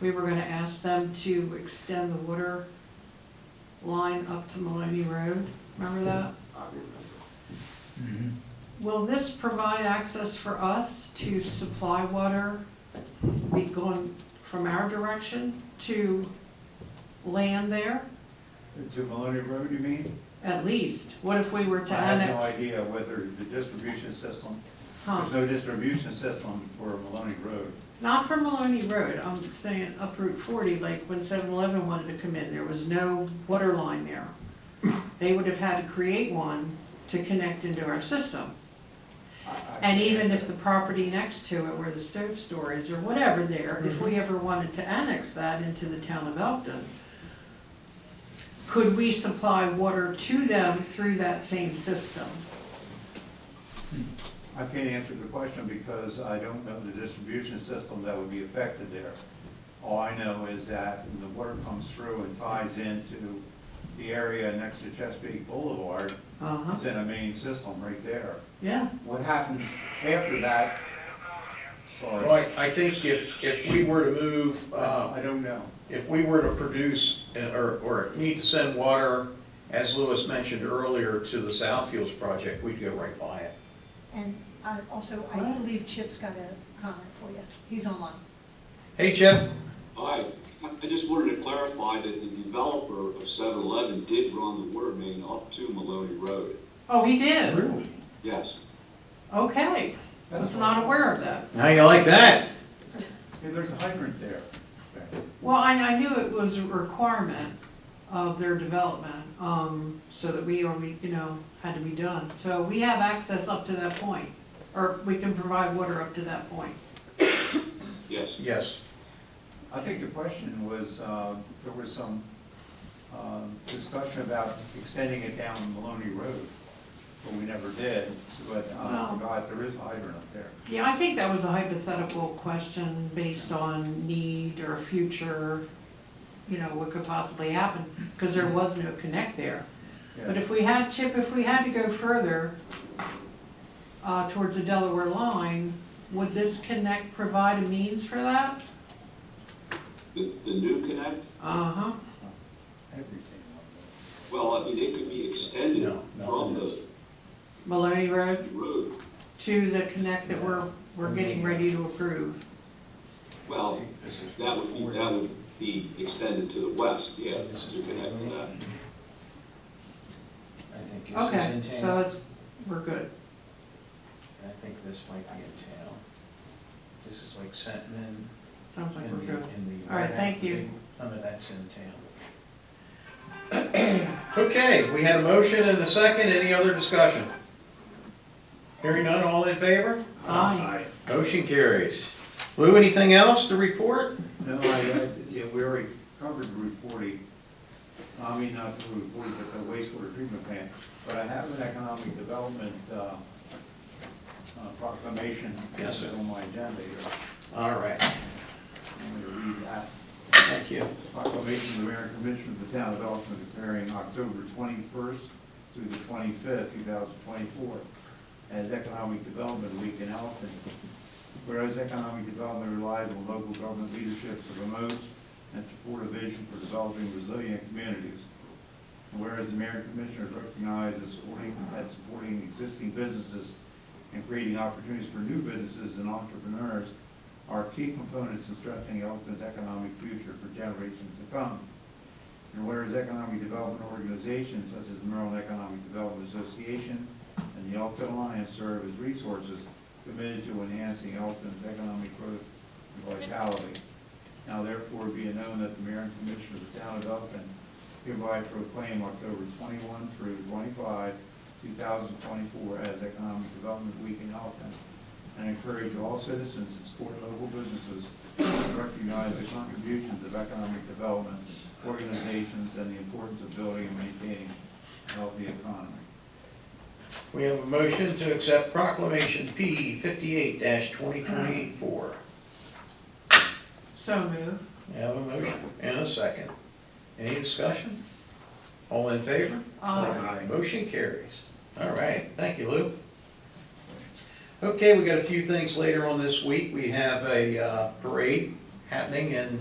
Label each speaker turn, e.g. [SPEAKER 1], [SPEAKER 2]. [SPEAKER 1] we were gonna ask them to extend the water line up to Maloney Road, remember that?
[SPEAKER 2] I remember.
[SPEAKER 1] Will this provide access for us to supply water, be going from our direction to land there,
[SPEAKER 3] To Maloney Road, you mean?
[SPEAKER 1] at least? What if we were
[SPEAKER 3] I
[SPEAKER 1] to
[SPEAKER 3] have no
[SPEAKER 1] annex?
[SPEAKER 3] idea whether the distribution system,
[SPEAKER 1] Huh.
[SPEAKER 3] there's no distribution system for Maloney Road.
[SPEAKER 1] Not from Maloney Road, I'm saying up Route forty, like when 7-Eleven wanted to come in, there was no water line there. They would have had to create one to connect into our system.
[SPEAKER 3] I- I-
[SPEAKER 1] And even if the property next to it where the stove store is or whatever there, if we ever wanted to annex that into the town of Elkton, could we supply water to them through that same system?
[SPEAKER 3] I can't answer the question because I don't know the distribution system that would be affected there. All I know is that when the water comes through and ties into the area next to Chesapeake Boulevard,
[SPEAKER 1] Uh-huh,
[SPEAKER 3] it's in a main system right there.
[SPEAKER 1] yeah,
[SPEAKER 3] What happens after that? Sorry,
[SPEAKER 2] Well, I, I think if, if we were to move, uh,
[SPEAKER 3] I don't know.
[SPEAKER 2] if we were to produce, uh, or, or need to send water, as Lewis mentioned earlier, to the South Fields project, we'd go right by it.
[SPEAKER 4] And uh, also, I believe Chip's got a comment for you. He's online.
[SPEAKER 2] Hey, Chip?
[SPEAKER 5] Hi, I just wanted to clarify that the developer of 7-Eleven did run the water main up to Maloney Road.
[SPEAKER 1] oh, he did,
[SPEAKER 5] Yes.
[SPEAKER 1] okay, I was not aware of that.
[SPEAKER 2] How you like that?
[SPEAKER 3] Hey, there's a hydrant there.
[SPEAKER 1] Well, I, I knew it was a requirement of their development, um, so that we, or we, you know, had to be done. So we have access up to that point, or we can provide water up to that point.
[SPEAKER 5] Yes.
[SPEAKER 2] Yes.
[SPEAKER 3] I think the question was, uh, there was some um, discussion about extending it down Maloney Road, but we never did, but uh, I
[SPEAKER 1] No.
[SPEAKER 3] forgot, there is a hydrant up there.
[SPEAKER 1] Yeah, I think that was a hypothetical question based on need or future, you know, what could possibly happen, because there was no connect there. But
[SPEAKER 3] Yeah.
[SPEAKER 1] if we had, Chip, if we had to go further uh, towards the Delaware line, would this connect provide a means for that?
[SPEAKER 5] The, the new connect,
[SPEAKER 1] Uh-huh.
[SPEAKER 3] Everything up
[SPEAKER 5] well, I mean, it could be extended
[SPEAKER 2] No, no,
[SPEAKER 5] from
[SPEAKER 2] it is.
[SPEAKER 5] the
[SPEAKER 1] Maloney Road
[SPEAKER 5] road.
[SPEAKER 1] to the connect that we're, we're getting ready to approve.
[SPEAKER 2] This
[SPEAKER 5] Well,
[SPEAKER 2] is- this is
[SPEAKER 5] that would be,
[SPEAKER 2] forty.
[SPEAKER 5] that would be extended to the west, yeah, to connect to that.
[SPEAKER 2] I think this is
[SPEAKER 1] Okay,
[SPEAKER 2] in town.
[SPEAKER 1] so it's, we're good.
[SPEAKER 2] I think this might be in town. This is like Sentinel.
[SPEAKER 1] Sounds like we're
[SPEAKER 2] in the,
[SPEAKER 1] good.
[SPEAKER 2] in the.
[SPEAKER 1] All right, thank you.
[SPEAKER 2] None of that's in town. Okay, we had a motion and a second, any other discussion? Hearing none, all in favor?
[SPEAKER 1] Aye.
[SPEAKER 2] Motion carries. Lou, anything else to report?
[SPEAKER 3] there. No, I, I- yeah, we already covered Route 40, I mean, not Route 40, but the wastewater treatment plant, but I have an economic development uh, uh, proclamation
[SPEAKER 2] Yes, sir.
[SPEAKER 3] on my agenda here.
[SPEAKER 2] All right,
[SPEAKER 3] I'm going to read that.
[SPEAKER 2] thank you.
[SPEAKER 3] Proclamation of the Mayor and Commissioner of the Town of Elkton declaring October 21st through the 25th, 2024 as Economic Development Week in Elkton. Whereas economic development relies on local government leadership to promote and support a vision for developing resilient communities. And whereas the Mayor and Commissioner recognize that supporting, that supporting existing businesses and creating opportunities for new businesses and entrepreneurs are key components in strengthening Elkton's economic future for generations to come. And whereas economic development organizations such as the Maryland Economic Development Association and the Elkton Alliance serve as resources committed to enhancing Elkton's economic growth and vitality. Now therefore be it known that the mayor and commissioner of the town of Elkton hereby proclaim October 21 through 25, 2024 as Economic Development Week in Elkton and encourage all citizens to support local businesses and recognize the contributions of economic development organizations and the importance of building and maintaining a healthy economy.
[SPEAKER 2] We have a motion to accept proclamation P fifty-eight twenty twenty-four.
[SPEAKER 1] So move.
[SPEAKER 2] We have a motion and a second. Any discussion? All in favor?
[SPEAKER 1] Aye.
[SPEAKER 2] Motion carries. All right, thank you, Lou. Okay, we got a few things later on this week. We have a uh, parade happening in